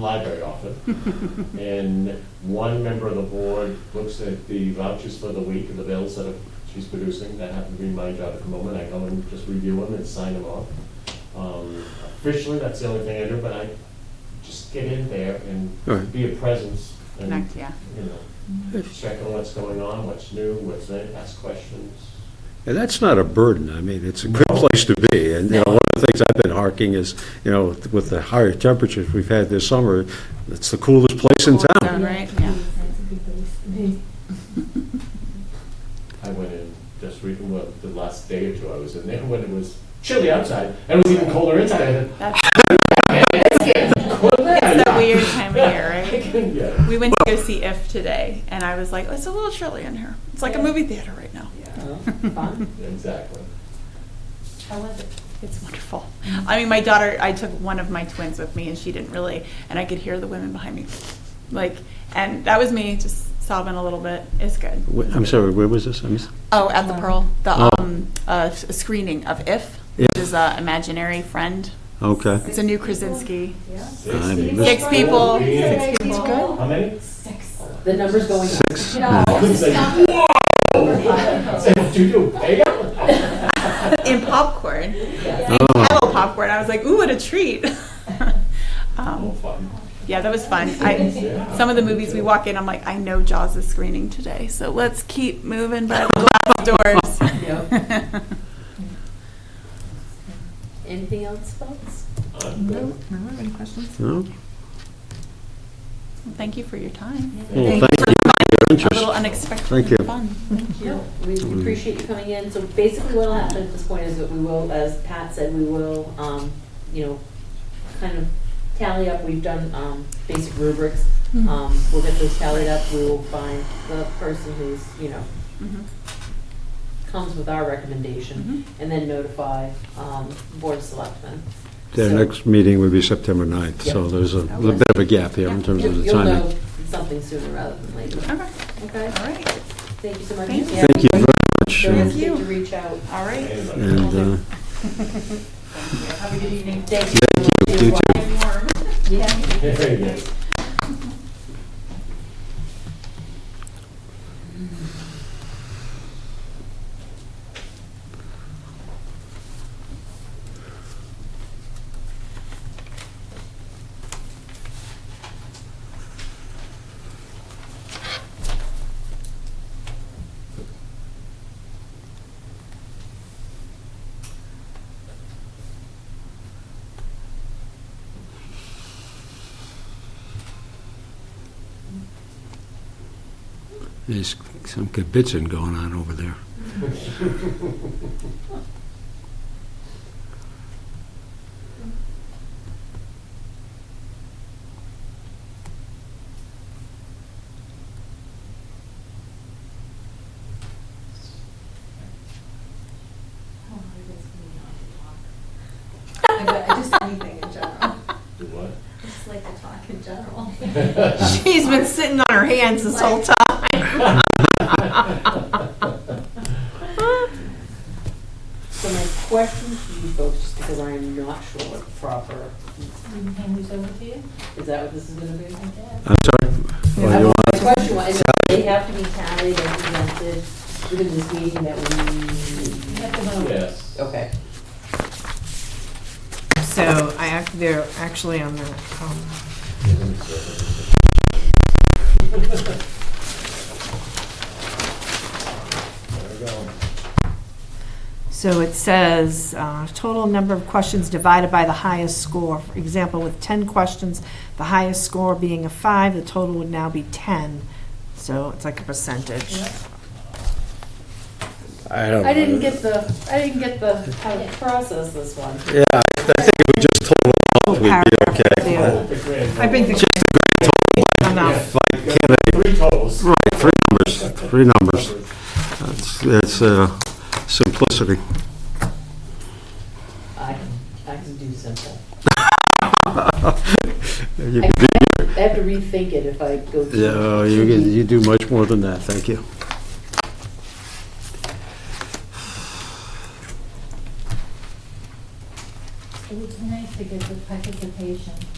library often, and one member of the board looks at the vouchers for the week and the bills that she's producing, that happen to be my job at the moment, I go and just review them and sign them off. Um, Officially, that's the only thing I do, but I just get in there and Alright. be a presence and, Connect, yeah. you know, check on what's going on, what's new, what's in, ask questions. And that's not a burden, I mean, it's a good place to be, and, you know, one of the things I've been harking is, you know, with the higher temperatures we've had this summer, it's the coolest place in town. Down, right? Yeah. That's a good place to be. I went in just recently, well, the last day or two I was in there, when it was chilly outside, and it was even colder inside, I said, That's "What the it's that hell?" weird time of year, right? Yeah. We went to go see If today, and I was like, it's a little chilly in here. It's like a movie theater right now. Fun. Exactly. How was it? It's wonderful. I mean, my daughter, I took one of my twins with me, and she didn't really, and I could hear the women behind me. Like, and that was me just sobbing a little bit. It's good. Wh- I'm sorry, where was this? I missed- Oh, at the Pearl, Oh. the um, uh, s- screening of If, which If. is uh, Imaginary Friend. Okay. It's a new Krasinski. Yeah. I mean, Six Six people. people. Six people. It's good. How many? Six. The number's going up. Six? No. It's like, whoa! Say, what do you do? Pay up? In popcorn. Oh. Kettle popcorn. I was like, ooh, what a treat. Oh, um, fun. yeah, that was fun. I, Yeah. some of the movies we walk in, I'm like, I know Jaws is screening today, so let's keep moving by the glass doors. Anything else, folks? I'm good. No? Thank you for your time. Well, thank you for your A little interest. unexpected Thank and you. fun. No, we Mm. appreciate you coming in. So basically what'll happen at this point is that we will, as Pat said, we will, um, you know, kind of tally up. We've done, um, basic rubrics. Mhm. Um, we'll get those tallied up. We will find the person who's, you know, Mhm. comes with our recommendation Mm-hmm. and then notify, um, Board of Selectmen. Their So- next meeting would be September 9th, so Yeah. there's a little bit of a gap here in terms You'll of the you'll know timing. something sooner rather than later. Okay, Okay, all right. thank you so much. Thank you. Thank you very much, Don't and, Thank hesitate you. to reach out. All right. Anyway. and, uh, Have a good evening. Thank thank you, you too. Warm. Yeah. Very good. There's some kibitzing going on over there. I got- I just anything in general. I Do what? just like to talk in general. She's been sitting on her hands this whole time. So my question to you folks, just because I am not sure what proper, Hand these over to you? is that what this is gonna be? I guess. I'm sorry? Well, you My want- question was, they have to be tallied and presented within this meeting that You we, have to vote. Yes. okay. So I, act- they're actually on the, um, There we go. so it says, uh, total number of questions divided by the highest score. For example, with 10 questions, the highest score being a five, the total would now be 10. So it's like a percentage. I don't know. I didn't get the, I didn't get the, how to process this one. Yeah, I I think if we just total up, we'd be Paragraph okay. there. Oh, the grand I think the total. just enough. Like, can I, Three totals. right, three numbers, three numbers. That's, that's uh, simplicity. I can, I can do simple. You I can do- I have to rethink it if I go. too- Yeah, uh, you can, you do much more than that, thank you. It would be nice to get the participation uh,